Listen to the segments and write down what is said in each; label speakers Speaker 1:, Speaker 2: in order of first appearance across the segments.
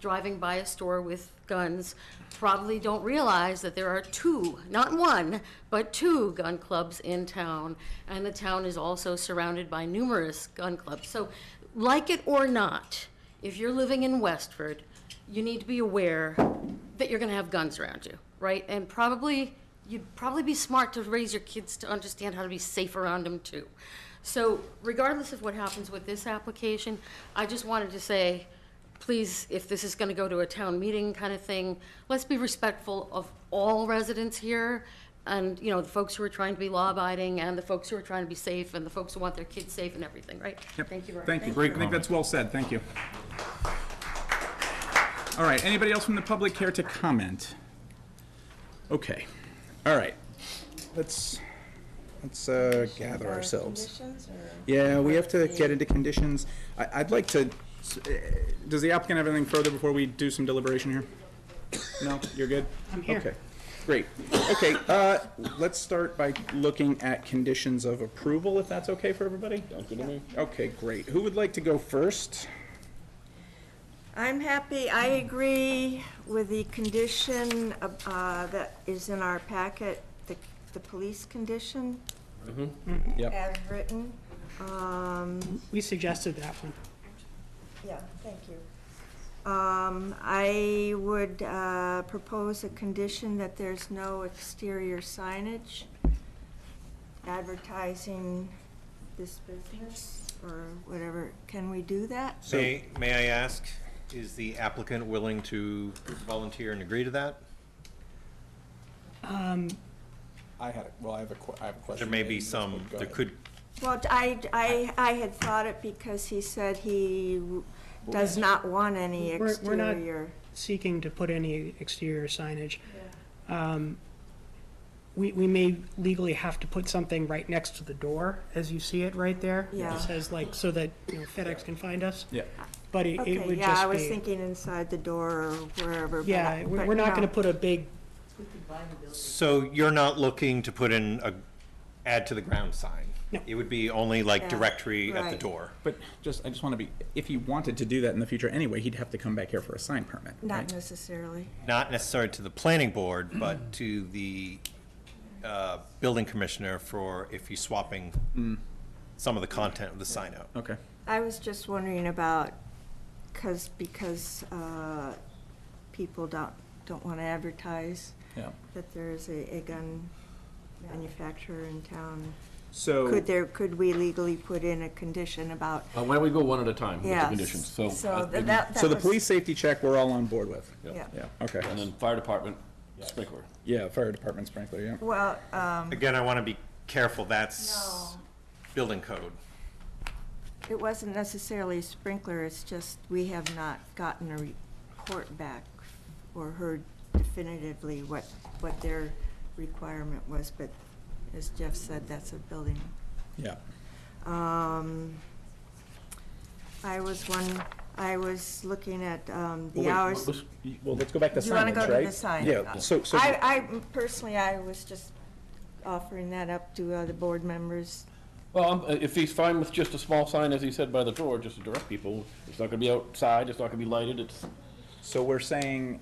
Speaker 1: driving by a store with guns probably don't realize that there are two, not one, but two gun clubs in town, and the town is also surrounded by numerous gun clubs. So, like it or not, if you're living in Westford, you need to be aware that you're going to have guns around you, right? And probably, you'd probably be smart to raise your kids to understand how to be safe around them too. So regardless of what happens with this application, I just wanted to say, please, if this is going to go to a town meeting kind of thing, let's be respectful of all residents here and, you know, the folks who are trying to be law-abiding and the folks who are trying to be safe and the folks who want their kids safe and everything, right?
Speaker 2: Yep.
Speaker 1: Thank you very much.
Speaker 2: Thank you.
Speaker 3: Great
Speaker 2: I think that's well said. Thank you. All right, anybody else from the public care to comment? Okay, all right. Let's, let's uh, gather ourselves.
Speaker 4: Conditions or?
Speaker 2: Yeah, we have to get into conditions. I, I'd like to, s- eh, does the applicant have anything further before we do some deliberation here? No, you're good? I'm here. Okay, great. Okay, uh, let's start by looking at conditions of approval, if that's okay for everybody? Okay, great. Who would like to go first?
Speaker 4: I'm happy, I agree with the condition of, uh, that is in our packet, the, the police condition.
Speaker 2: Yep.
Speaker 4: As written, um,
Speaker 5: We suggested that one.
Speaker 4: yeah, thank you. Um, I would, uh, propose a condition that there's no exterior signage advertising this business or whatever. Can we do that?
Speaker 6: May, may I ask, is the applicant willing to volunteer and agree to that?
Speaker 2: I had, well, I have a, I have a question.
Speaker 6: There may be some, there could,
Speaker 4: Well, I, I, I had thought it because he said he w- does not want any
Speaker 5: We're- we're not-
Speaker 4: exterior.
Speaker 5: Seeking to put any exterior signage. Um, We, we may legally have to put something right next to the door, as you see it right there. It
Speaker 4: Yeah.
Speaker 5: Says like, so that you know, FedEx can find us,
Speaker 2: Yeah.
Speaker 5: but it it
Speaker 4: Okay,
Speaker 5: would
Speaker 4: yeah, I
Speaker 5: just
Speaker 4: was
Speaker 5: be.
Speaker 4: thinking inside the door or wherever, but. I-
Speaker 5: Yeah, we're
Speaker 4: but
Speaker 5: we're not
Speaker 4: no.
Speaker 5: gonna put a big,
Speaker 6: so you're not looking to put in a, add to the ground sign?
Speaker 5: No.
Speaker 6: It would be only like
Speaker 4: Yeah,
Speaker 6: directory at the
Speaker 4: right.
Speaker 6: door.
Speaker 2: But just, I just want to be, if he wanted to do that in the future anyway, he'd have to come back here for a sign permit,
Speaker 4: Not
Speaker 2: right?
Speaker 4: necessarily.
Speaker 6: Not necessarily to the planning board, but to the, uh, building commissioner for if you're swapping some of the content of the sign out.
Speaker 2: Okay,
Speaker 4: I was just wondering about, cause, because, uh, people don't, don't wanna advertise
Speaker 2: yeah.
Speaker 4: that there's a, a gun manufacturer in town.
Speaker 2: So.
Speaker 4: Could there, could we legally put in a condition about,
Speaker 3: Uh, Why don't we go one at a time with the
Speaker 4: yeah.
Speaker 3: conditions? So, uh,
Speaker 4: So that, that
Speaker 2: So the
Speaker 4: was-
Speaker 2: police safety check, we're all on board with?
Speaker 4: Yeah.
Speaker 2: Yeah, okay.
Speaker 3: And then fire department sprinkler.
Speaker 2: Yeah, fire department sprinkler, yeah.
Speaker 4: Well, um,
Speaker 6: Again, I wanna be careful, that's
Speaker 4: No.
Speaker 6: building code.
Speaker 4: It wasn't necessarily a sprinkler, it's just we have not gotten a report back or heard definitively what, what their requirement was, but as Jeff said, that's a building.
Speaker 2: Yeah.
Speaker 4: Um, I was one, I was looking at um,
Speaker 2: Well,
Speaker 4: the
Speaker 2: wait,
Speaker 4: hours.
Speaker 2: let's- Well, let's go back to signage,
Speaker 4: You wanna
Speaker 2: right?
Speaker 4: go to the sign?
Speaker 2: Yeah, so, so,
Speaker 4: I, I, personally, I was just offering that up to uh, the board members.
Speaker 3: Well, I'm- uh, if he's fine with just a small sign, as he said, by the door, just to direct people, it's not gonna be outside, it's not gonna be lighted, it's,
Speaker 2: so we're saying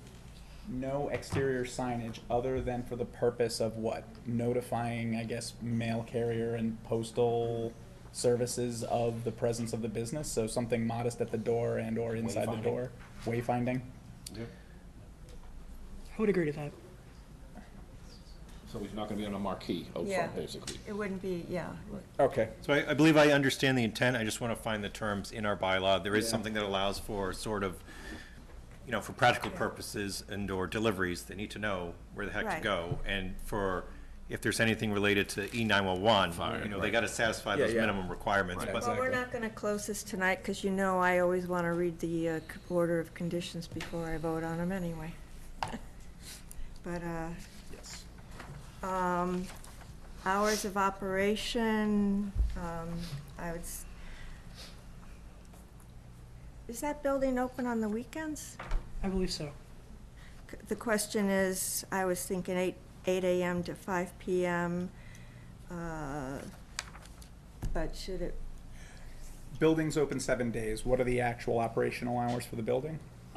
Speaker 2: no exterior signage other than for the purpose of what? Notifying, I guess, mail carrier and postal services of the presence of the business? So something modest at the door and or inside the
Speaker 3: Wayfinding.
Speaker 2: door? Wayfinding?
Speaker 5: I would agree to that.
Speaker 3: so he's not gonna be on a marquee out
Speaker 4: Yeah.
Speaker 3: front, basically.
Speaker 4: It wouldn't be, yeah.
Speaker 2: Okay,
Speaker 6: So I, I believe I understand the intent, I just want to find the terms in our bylaw. There is something that allows for sort of, you know, for practical purposes and/or deliveries, they need to know where the heck to
Speaker 4: Right.
Speaker 6: go. And for, if there's anything related to E nine-one-one, you know, they got to satisfy those
Speaker 2: Yeah, yeah.
Speaker 6: minimum requirements.
Speaker 2: Right.
Speaker 6: But
Speaker 4: Well, we're not going to close this tonight because you know I always want to read the uh, c- order of conditions before I vote on them anyway. But uh,
Speaker 2: yes.
Speaker 4: um, hours of operation, um, I would, s- is that building open on the weekends?
Speaker 5: I believe so.
Speaker 4: C- The question is, I was thinking eight, eight AM to five PM, uh, but should it
Speaker 2: Building's open seven days. What are the actual operational hours for the building?